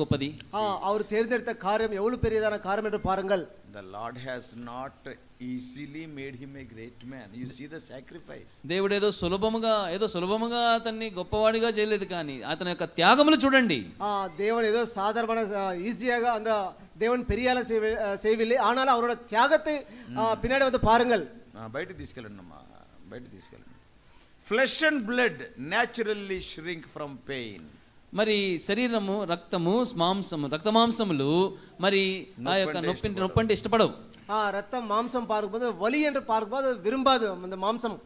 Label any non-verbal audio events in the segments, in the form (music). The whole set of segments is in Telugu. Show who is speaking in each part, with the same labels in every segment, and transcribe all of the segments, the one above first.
Speaker 1: గొప్పది
Speaker 2: ஆ, அவர் தேர்ந்தெடுத்த காரியம் எவ்வளவு பெரியதான காரியம் என்று பாருங்கள்
Speaker 3: The Lord has not easily made him a great man. You see the
Speaker 1: (laughs)
Speaker 3: sacrifice.
Speaker 1: దేవుడు ఏదో సులభముగా ఏదో సులభముగా అతన్ని గొప్పవాడిగా చేయలేదు కానీ అతని యొక్క త్యాగములు చూడండి
Speaker 2: ஆ, தேவன் ஏதோ சாதாரண ஈஸியாக அந்த தேவன் பெரிய ஆளா செய்வி- அஹ், செய்யவில்லை ஆனால் அவரோட தியாகத்தை ஆ, பின்னாடி வந்து பாருங்கள்
Speaker 3: Ah, బయట తీసుకెళ్ళండి అమ్మా బయట తీసుకెళ్ళండి flesh and blood naturally shrink from pain
Speaker 1: మరి శరీరము రక్తము మాంసము రక్త మాంసములు మరి ఆ యొక్క నొప్పి నొప్పి అంటే ఇష్టపడవు
Speaker 2: ஆ, ரத்தம் மாம்சம் பார்க்கும்போது வலி என்று பார்க்கும்போது அது விரும்பாது அந்த மாம்சம்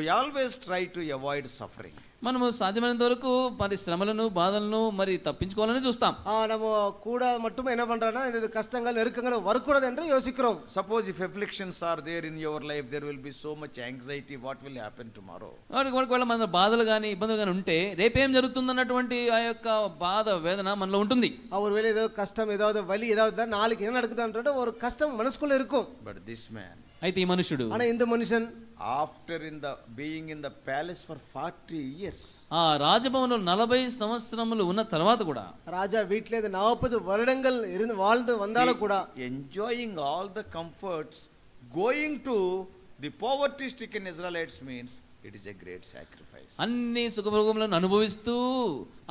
Speaker 3: we always try to avoid suffering
Speaker 1: మనము సాధ్యమైనంత వరకు మరి శ్రమలను బాధలను మరి తప్పించుకోవాలని చూస్తాం
Speaker 2: ஆ, நம்ம கூட மட்டும் என்ன பண்றோம்னா இது கஷ்டங்கள் நெருக்கங்கள் வரக்கூடாது என்று யோசிக்கிறோம்
Speaker 3: suppose if afflictions are there in your life there will be so much anxiety what will happen tomorrow
Speaker 1: వాడికి ఒకవేళ మన బాధలు కానీ ఇబ్బందులు కానీ ఉంటే రేపేం జరుగుతుందన్నటువంటి ఆ యొక్క బాధ వేదన మనలో ఉంటుంది
Speaker 2: ஒருவேளை ஏதோ கஷ்டம் ஏதாவது வலி ஏதாவது தான் நாளைக்கு என்ன நடக்குதுன்ற ஒரு கஷ்டம் మనసుకుள்ள இருக்கும்
Speaker 3: but this man
Speaker 1: అయితే ఈ మనుషుడు
Speaker 2: ஆனா இந்த மனுஷன்
Speaker 3: after in the being in the palace for 40 years
Speaker 1: ఆ రాజభవనంలో నలభై సంవత్సరములు ఉన్న తర్వాత కూడా
Speaker 2: ராஜா வீட்டிலே இந்த நாற்பது வருடங்கள் இருந்து வாழ்ந்து வந்தாலும் கூட
Speaker 3: enjoying all the comforts going to the poverty stricken israelites means it is a great sacrifice
Speaker 1: అన్ని సుఖభోగములను అనుభవిస్తూ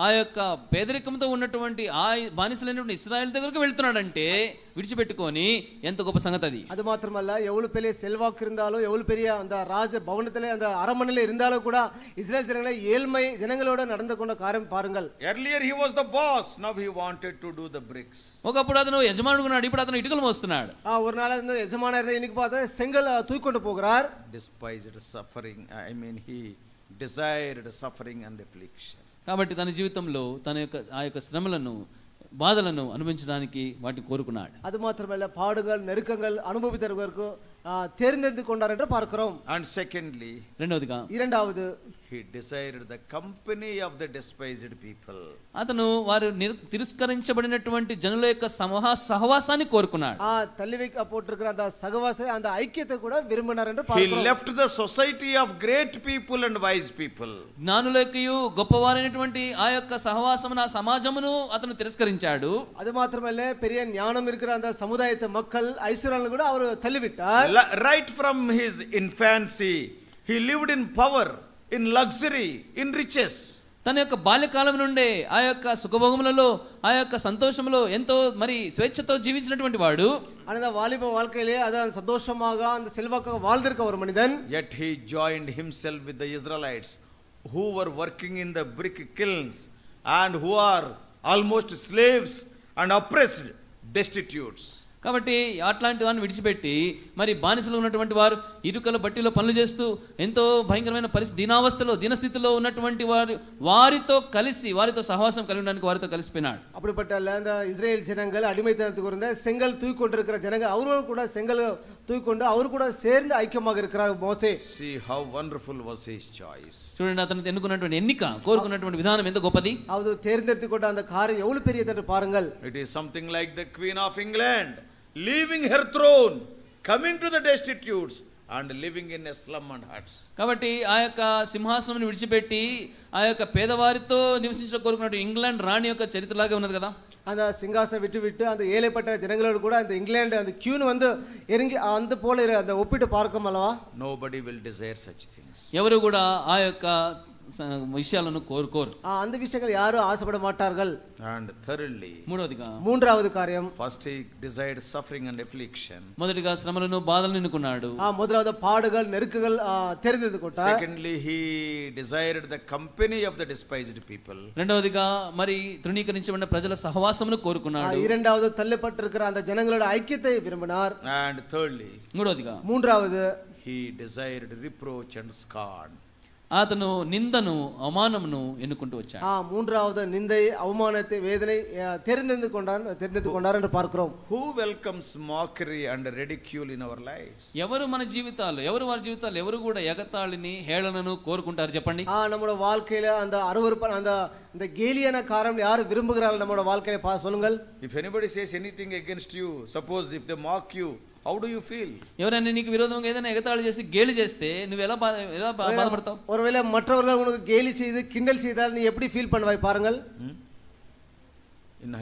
Speaker 1: ఆ యొక్క పేదరికంతో ఉన్నటువంటి ఆ బానిసలైనటువంటి ఇస్రాయల్ దగ్గరకు వెళ్తున్నాడంటే విడిచిపెట్టుకొని ఎంత గొప్ప సంగతి అది
Speaker 2: அது மாத்திரமல்ல எவ்வளவு பெரிய செல்வாக்கு இருந்தாலும் எவ்வளவு பெரிய அந்த ராஜ భవనத்திலே அந்த அரண்மனையில இருந்தாலும் கூட இஸ்ரேல் ஜனங்களை ஏழ்மை ஜனங்களோட நடந்து கொண்ட காரியம் பாருங்கள்
Speaker 3: earlier he was the boss now he wanted to do the bricks
Speaker 1: ఒకప్పుడు అతను యజమానుడుకున్నాడు ఇప్పుడు అతను ఇటుకలు మోస్తున్నాడు
Speaker 2: ஆ, ஒரு நாள் இந்த எஜமான இன்னைக்கு பார்த்தா செங்கல் தூக்கிக்கொண்டு போகிறார்
Speaker 3: despised suffering i mean he desired suffering and affliction
Speaker 1: కాబట్టి తన జీవితంలో తన యొక్క ఆ యొక్క శ్రమలను బాధలను అనుభవించడానికి వాటిని కోరుకున్నాడు
Speaker 2: அது மாத்திரமல்ல பாடுகள் நெருக்கங்கள் அனுபவித்தவர்களுக்கு ஆ, தேர்ந்தெடுத்து கொண்டார் என்று பார்க்கிறோம்
Speaker 3: and secondly
Speaker 1: రెండవదిగా
Speaker 2: இரண்டாவது
Speaker 3: he desired the company of the despised people
Speaker 1: అతను వారు నిర్- తిరస్కరించబడినటువంటి జనుల యొక్క సమూహ సహవాసాన్ని కోరుకున్నాడు
Speaker 2: ஆ, தள்ளி வைக்க போட்டிருக்கிற அந்த சகவாசை அந்த ஐக்கியத்தை கூட விரும்பினார் என்று
Speaker 3: he
Speaker 2: பார்க்கிறோம்
Speaker 3: left the society of great people and wise people
Speaker 1: జ్ఞానులకయు గొప్పవారైనటువంటి ఆ యొక్క సహవాసమును ఆ సమాజమును అతను తిరస్కరించాడు
Speaker 2: அது மாத்திரமல்ல பெரிய ஞானம் இருக்கிற அந்த சமுதாயத்தை மக்கள் ஐஸ்வர்யாలను கூட அவர் தள்ளிவிட்டார்
Speaker 3: La- right from his infancy he lived in power in luxury in riches
Speaker 1: తన యొక్క బాల్యకాలం నుండే ఆ యొక్క సుఖభోగములలో ఆ యొక్క సంతోషములో ఎంతో మరి స్వేచ్ఛతో జీవించినటువంటి వాడు
Speaker 2: ஆனா இந்த வாலிப வாழ்க்கையிலே அதான் சந்தோஷமாக அந்த செல்வாக்காக வாழ்ந்திருக்க ஒரு மனிதன்
Speaker 3: yet he joined himself with the israelites who were working in the brick kilns and who are almost slaves and oppressed destitutes
Speaker 1: కాబట్టి అట్లాంటి వారిని విడిచిపెట్టి మరి బానిసలు ఉన్నటువంటి వారు ఇరుకల బట్టిలో పనులు చేస్తూ ఎంతో భయంకరమైన పరిస్థితి దీనావస్థలో దీనస్థితిలో ఉన్నటువంటి వారు వారితో కలిసి వారితో సహవాసం కలిగి ఉండడానికి వారితో కలిసిపోయినాడు
Speaker 2: அப்படிப்பட்ட அல்ல அந்த இஸ்ரேல் ஜனங்கள் அடிமைத்தனத்துக்கு இருந்த செங்கல் தூக்கி கொண்டிருக்கிற ஜனங்கள் அவரோடு கூட செங்கல் தூக்கி கொண்டு அவர் கூட சேர்ந்து ஐக்கியமாக இருக்கிறார் மோசே
Speaker 3: see how wonderful was his choice
Speaker 1: చూడండి అతను ఎన్నుకున్నటువంటి ఎన్నిక కోరుకున్నటువంటి విధానం ఎంత గొప్పది
Speaker 2: அவர் தேர்ந்தெடுத்து கொண்ட அந்த காரியம் எவ்வளவு பெரியது என்று பாருங்கள்
Speaker 3: It is something like the Queen of England leaving her throne, coming to the destitutes, and living in a slum and huts.
Speaker 1: కాబట్టి ఆ యొక్క సింహాసనం విడిచిపెట్టి ఆ యొక్క పేదవారితో నివసించడం కోరుకున్నట్టు ఇంగ్లాండ్ రాణి యొక్క చరిత్రలాగే ఉన్నది కదా
Speaker 2: அந்த சிங்காசனம் விட்டு விட்டு அந்த ஏழைப்பட்ட ஜனங்களோடு கூட அந்த இங்கிலாந்து அந்த கியூன் வந்து இறங்கி அந்த போல இரு- அந்த ஒப்பிட்டு பார்க்கும் அல்லவா
Speaker 3: Nobody will desire such things.
Speaker 1: ఎవరు కూడా ఆ యొక్క స- విషయాలను కోరుకోరు
Speaker 2: ஆ, அந்த விஷயங்கள் யாரும் ஆசைப்பட మాటాர்கள்
Speaker 3: And thirdly,
Speaker 1: మూడవదిగా
Speaker 2: மூன்றாவது காரியம்
Speaker 3: first he desired suffering and affliction.
Speaker 1: మొదటిగా శ్రమలను బాధలను ఎన్నుకున్నాడు
Speaker 2: ஆ, முதலாவது பாடுகள் நெருக்குகள் ஆ, தெரிந்தது கொட்டார்
Speaker 3: Secondly, he desired the company of the despised people.
Speaker 1: రెండవదిగా మరి తృణీకరించబడిన ప్రజల సహవాసమును
Speaker 2: ஆ,
Speaker 1: కోరుకున్నాడు
Speaker 2: இரண்டாவது தள்ளப்பட்டிருக்கிற அந்த ஜனங்களோட ஐக்கியத்தை விரும்பினார்
Speaker 3: And thirdly,
Speaker 1: మూడవదిగా
Speaker 2: மூன்றாவது
Speaker 3: he desired reproach and scorn.
Speaker 1: అతను నిందను అవమానమును ఎన్నుకుంటూ వచ్చాడు
Speaker 2: ஆ, மூன்றாவது நிந்தை அவமானத்தை வேதனை ஆ, தெரிந்தெடுத்து கொண்டார் தெரிந்தெடுத்து கொண்டார் என்று பார்க்கிறோம்
Speaker 3: Who welcomes mockery and ridicule in our lives?
Speaker 1: ఎవరు మన జీవితాలు ఎవరు వారి జీవితాలు ఎవరు కూడా ఎగతాళిని హేళనను కోరుకుంటారు చెప్పండి
Speaker 2: ஆ, நம்மளோட வாழ்க்கையில அந்த அருவருப்பான அந்த இந்த கேலியான காரணம் யார் விரும்புகிறார்கள் நம்மளோட வாழ்க்கையில பா சொல்லுங்கள்
Speaker 3: If anybody says anything against you, suppose if they mock you, how do you feel?
Speaker 1: ఎవరైనా నీకు విరోధంగా ఏదైనా ఎగతాళి చేసి గేలి చేస్తే నువ్వు ఎలా బాధ ఎలా బా- బాధపడతావు
Speaker 2: ஒருவேளை மற்றவர்கள் உனக்கு கேலி செய்து கிண்டல் செய்தால் நீ எப்படி ஃபீல் பண்ணுவாய் பாருங்கள்
Speaker 3: Hmm?